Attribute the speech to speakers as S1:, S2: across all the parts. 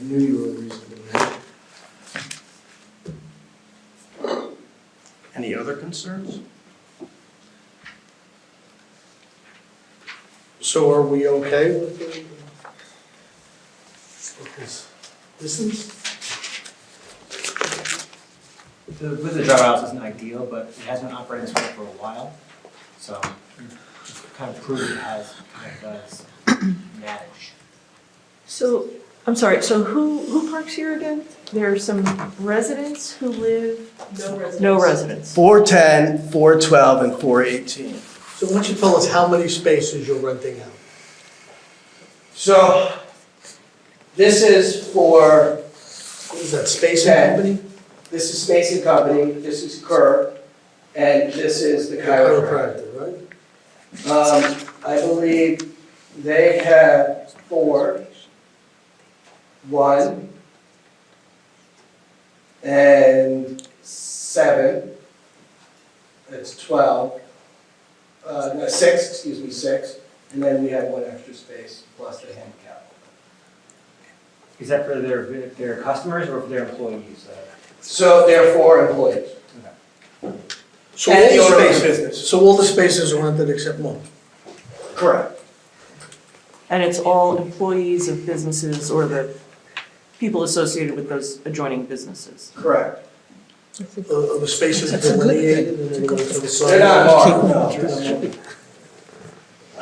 S1: I knew you were reasonable.
S2: Any other concerns?
S1: So are we okay with the, with this distance?
S3: The width of the driver house isn't ideal, but it has been operating this way for a while, so it's kind of proved it has, kind of does manage.
S4: So, I'm sorry, so who, who parks here again? There are some residents who live,
S5: No residents.
S4: no residents.
S6: 410, 412, and 418.
S1: So why don't you tell us how many spaces you're renting out?
S6: So this is for,
S1: What is that, space and company?
S6: this is Space and Company, this is Kerr, and this is the chiropractor.
S1: Chiropractor, right?
S6: Um, I believe they have four, one, and seven. That's 12. Uh, no, six, excuse me, six. And then we have one extra space plus the handicap.
S3: Is that for their, their customers or for their employees? Uh,
S6: So there are four employees.
S1: So
S6: And the
S1: all
S6: owner of
S1: the
S6: the
S1: spaces, so all the spaces are rented except one?
S6: Correct.
S4: And it's all employees of businesses or the people associated with those adjoining businesses.
S6: Correct.
S1: Are are uh, the spaces delineated and then go to the side?
S6: They're not marked, no.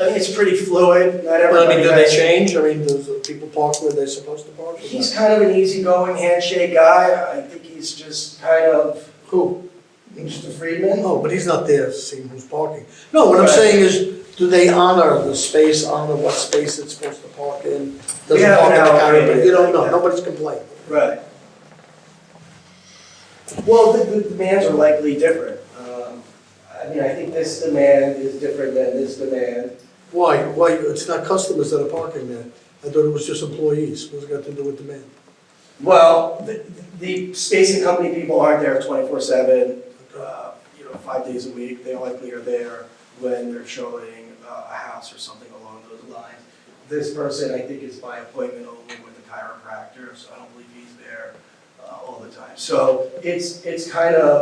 S6: I mean, it's pretty fluid, not
S1: But I
S6: everybody
S1: mean, do they
S6: has.
S1: change? I mean, does the people park where they're supposed to park? or
S6: He's
S1: not?
S6: kind of an easygoing handshake guy. I think he's just kind of
S1: Who?
S6: Mr. Friedman.
S1: No, Oh, but he's not there seeing who's parking. No, what I'm
S6: Right.
S1: saying is, do they honor the space, honor what space it's supposed to park in?
S6: We
S1: Doesn't
S6: haven't
S1: park in the
S6: allocated
S1: counter, but you don't
S6: it.
S1: know, nobody's complaining.
S6: Right. Well, the, the demands are likely different. Um, I mean, I think this demand is different than this demand.
S1: Why, why, it's not customers that are parking there. I thought it was just employees. What's it got to do with demand?
S6: Well, the, the space and company people aren't there twenty-four seven, uh, you know, five days a week. They likely are there when they're showing uh, a house or something along those lines. This person, I think, is by appointment only with the chiropractor, so I don't believe he's there uh, all the time. So it's, it's kind of,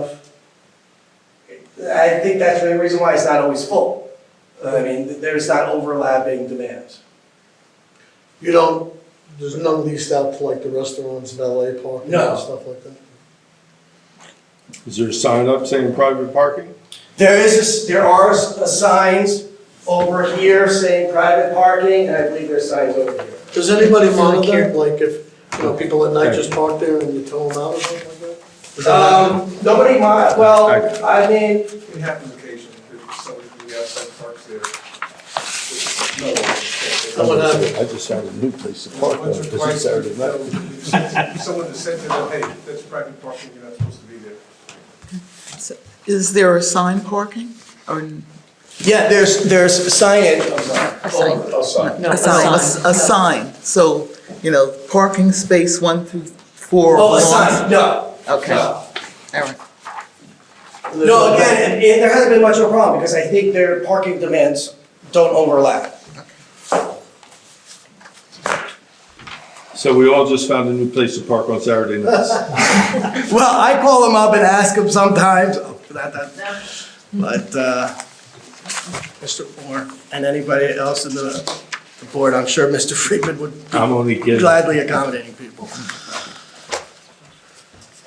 S6: I think that's the reason why it's not always full. I mean, there's not overlapping demands.
S1: You don't, there's none leased out to like the restaurants, valet parking
S6: No.
S1: and stuff like that?
S7: Is there a sign up saying private parking?
S6: There is, a s- there are s- uh, signs over here saying private parking, and I believe there's signs over here.
S1: Does anybody monitor, like if, you know, people at night just park there and you tow them out or something like that? Does that happen?
S6: Um, nobody mind, well,
S7: Okay.
S6: I mean,
S8: It happens occasionally, if somebody from the outside parks there. It's no one-
S1: Someone had it.
S7: I just found a new place to park though,
S8: Once or
S7: because it's
S8: twice, they'll-
S7: Saturday night.
S8: they'll- someone has said to them, hey, that's private parking, you're not supposed to be there.
S5: Is there assigned parking or?
S6: yeah, there's, there's a sign in, Uh,
S5: Assigned. Assigned, so, you know, parking space one through four.
S6: oh, a
S5: assigned.
S6: sign, no.
S5: Okay,
S6: No.
S5: all right.
S6: No, again, and- and there hasn't been much of a problem, because I think their parking demands don't overlap.
S7: So we all just found a new place to park on Saturday nights.
S6: Well, I call them up and ask them sometimes, oh, that, that, but, uh, Mr. Moore and anybody else in the, the board, I'm sure Mr. Friedman would
S7: I'm only
S6: be
S7: kidding.
S6: gladly accommodating people.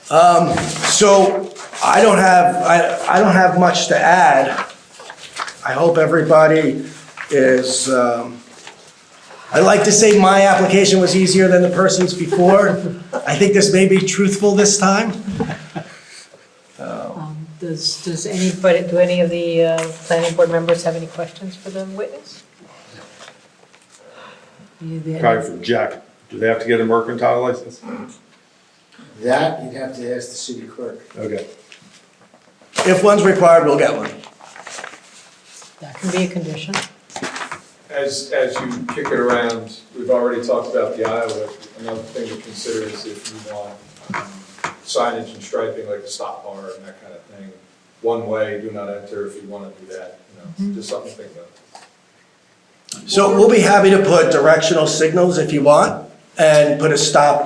S6: Um, so I don't have, I, I don't have much to add. I hope everybody is, um, i like to say my application was easier than the person's before. I think this may be truthful this time.
S9: Um, Does, does anybody, do any of the uh, planning board members have any questions for the witness? You- the-
S7: Guy from Jack, do they have to get a mercantile license?
S2: That you'd have to ask the city clerk.
S7: Okay.
S6: If one's required, we'll get one.
S9: That can be a condition.
S8: As, as you kick it around, we've already talked about the Iowa, another thing to consider is if you want um, signage and striping, like a stop bar and that kind of thing, one way, do not enter if you want to do that, you know, just something to think about.
S6: So we'll be happy to put directional signals if you want, and put a stop